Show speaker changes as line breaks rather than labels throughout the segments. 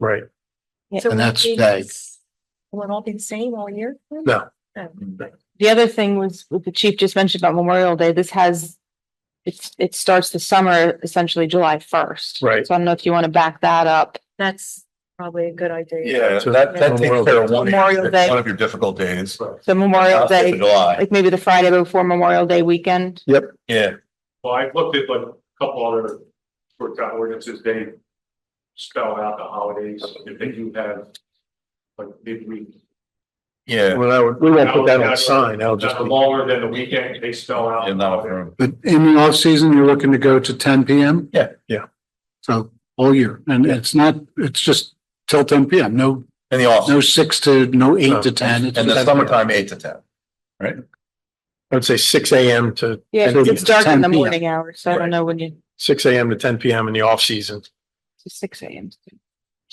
Right.
So
And
will
that's
these-
that.
Will it all be the same all year?
No.
Oh.
The other thing was, what the chief just mentioned about Memorial Day, this has, it's, it starts the summer essentially July first.
Right.
So I don't know if you want to back that up.
That's probably a good idea.
Yeah,
So
so that, that takes
Memorial
care
Day.
of one,
Memorial Day.
one of your difficult days.
So Memorial
Uh,
Day,
July,
like maybe the Friday before Memorial Day weekend.
yeah,
Well, I've looked at like a couple other workout ordinances, they spell out the holidays, if they do have like midweek.
yeah,
Well, I would, we won't put that on a sign. That'll just
That's
be,
longer than the weekend, they spell out.
in that room.
But in the off season, you're looking to go to ten PM?
Yeah,
yeah.
So all year, and it's not, it's just till ten PM, no,
In the off,
no six to, no
No.
eight to ten. It's
in the
just-
summertime, eight to ten.
I'd say six AM to
Yeah, 'cause it's dark in the
10 p.m.
morning hours, so I don't
Right.
know when you,
six AM to ten PM in the off season.
it's six AM.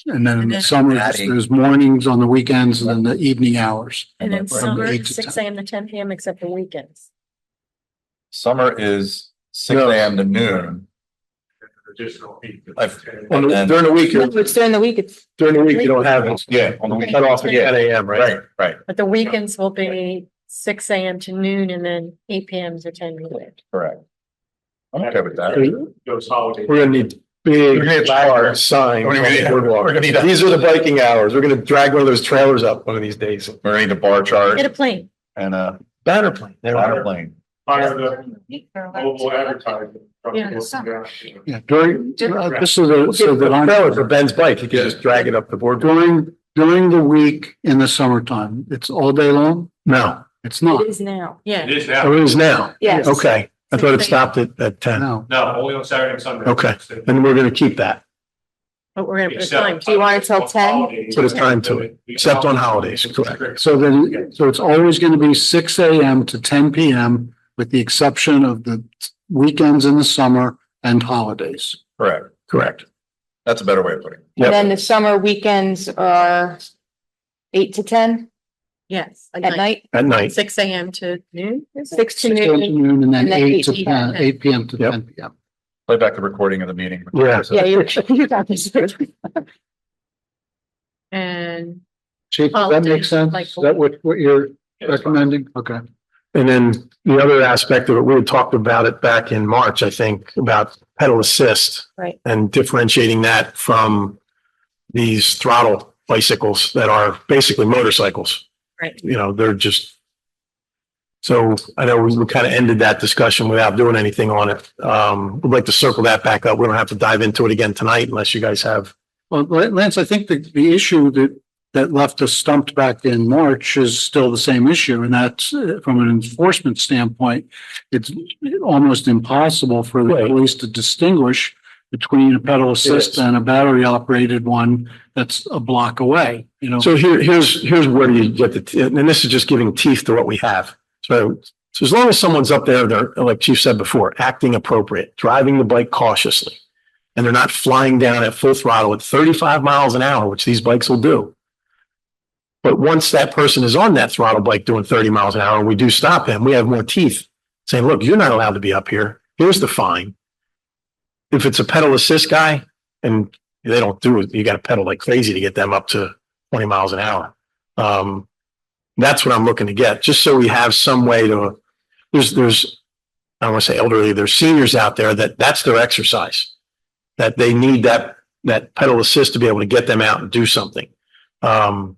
And then in
And
the
then-
summer, it's those mornings on the weekends and then the evening hours.
And then
From
summer,
eight to
six
10.
AM to ten PM except for weekends.
Summer is six
No.
AM to noon.
Additional. week.
I've-
On the-
And-
During the week,
No,
you're-
It's during the week, it's,
during the week, you don't have it.
Yeah, on the
Cut
weekend,
off at ten AM, right?
right, right,
But the weekends will be six AM to noon and then eight PM to ten PM.
correct. I'm okay with that.
We're
Those holidays.
gonna need
We're
big
gonna-
large signs.
We're
on
gonna need-
the boardwalk.
we're gonna need a-
These are the biking hours. We're gonna drag one of those trailers up one of these days.
We're gonna need a bar chart
Get a plane.
and a
Banner plane. There we
ladder
are.
plane.
Hire the mobile advertising. from
Yeah,
the-
summer.
Yeah, during, uh, this is a, so that I'm.
Trailer for Ben's bike. You can just drag it up the boardwalk.
During, during the week in the summertime, it's all day long?
No,
It's
it
not,
is now.
It
Yeah.
is
oh,
now,
it is now.
Yes.
Okay. I thought it stopped at, at ten.
no.
no, only on Saturday and Sunday.
Okay. And we're gonna keep that.
But we're gonna put a
Except-
time.
Do you want it till 10?
Put a time to it, except on holidays, correct.
So then, so it's always going to be six AM to ten PM with the exception of the weekends in the summer and holidays.
Correct.
Correct.
That's a better way of putting it.
Yep.
And then the summer weekends are eight to ten
Yes. like
at night,
At night.
Six AM to noon. is it?
six to
Six AM to
noon.
noon and then eight to
8
10, eight PM to
Yep.
ten PM.
Play back the recording of the meeting.
Yeah.
Yeah, you're, you got this.
And
Chief, does that makes sense?
Holidays,
Is that what, what you're
Yes.
recommending? Okay.
And then the other aspect of it, we had talked about it back in March, I think, about pedal assist.
Right.
And differentiating that from these throttle bicycles that are basically motorcycles.
Right.
You know, they're just. So I know we kind of ended that discussion without doing anything on it. Um, we'd like to circle that back up. We don't have to dive into it again tonight unless you guys have.
Well, Lance, I think the, the issue that, that left us stumped back in March is still the same issue. And that's uh, from an enforcement standpoint, it's almost impossible for the
Right.
police to distinguish between a pedal
is.
assist and a battery operated one that's a block away, you know?
So here, here's, here's where you get the, te- and this is just giving teeth to what we have. So, so as long as someone's up there, they're, like Chief said before, acting appropriate, driving the bike cautiously. And they're not flying down at full throttle at thirty-five miles an hour, which these bikes will do. But once that person is on that throttle bike doing thirty miles an hour, we do stop him. We have more teeth saying, look, you're not allowed to be up here. Here's the fine. If it's a pedal assist guy and they don't do it, you got to pedal like crazy to get them up to twenty miles an hour. Um, that's what I'm looking to get, just so we have some way to, there's, there's, I don't want to say elderly, there's seniors out there that that's their exercise. That they need that, that pedal assist to be able to get them out and do something. Um,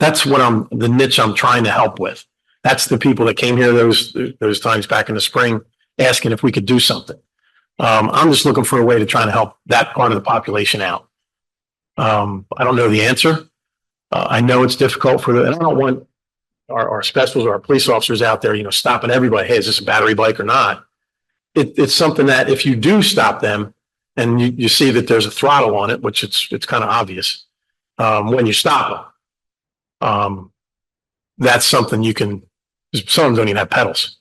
that's what I'm, the niche I'm trying to help with. That's the people that came here those, those times back in the spring, asking if we could do something. Um, I'm just looking for a way to try to help that part of the population out. Um, I don't know the answer. Uh, I know it's difficult for the, and I don't want our, our specials, or our police officers out there, you know, stopping everybody. Hey, is this a battery bike or not? It, it's something that if you do stop them and you, you see that there's a throttle on it, which it's, it's kind of obvious, um, when you stop them. Um, that's something you can, some of them don't even have pedals.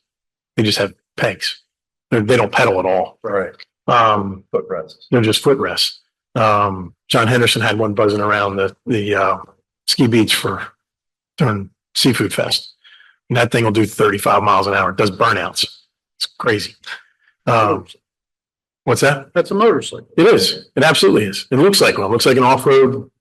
They just have pegs. They're, they don't pedal at all.
Right,
Um,
foot rests.
they're just footrests. Um, John Henderson had one buzzing around the, the, uh, ski beach for during seafood fest. And that thing will do thirty-five miles an hour. It does burnouts. It's crazy. Um, What's that?
That's a motorcycle.
It is. It absolutely is. It looks like one. It looks like an off-road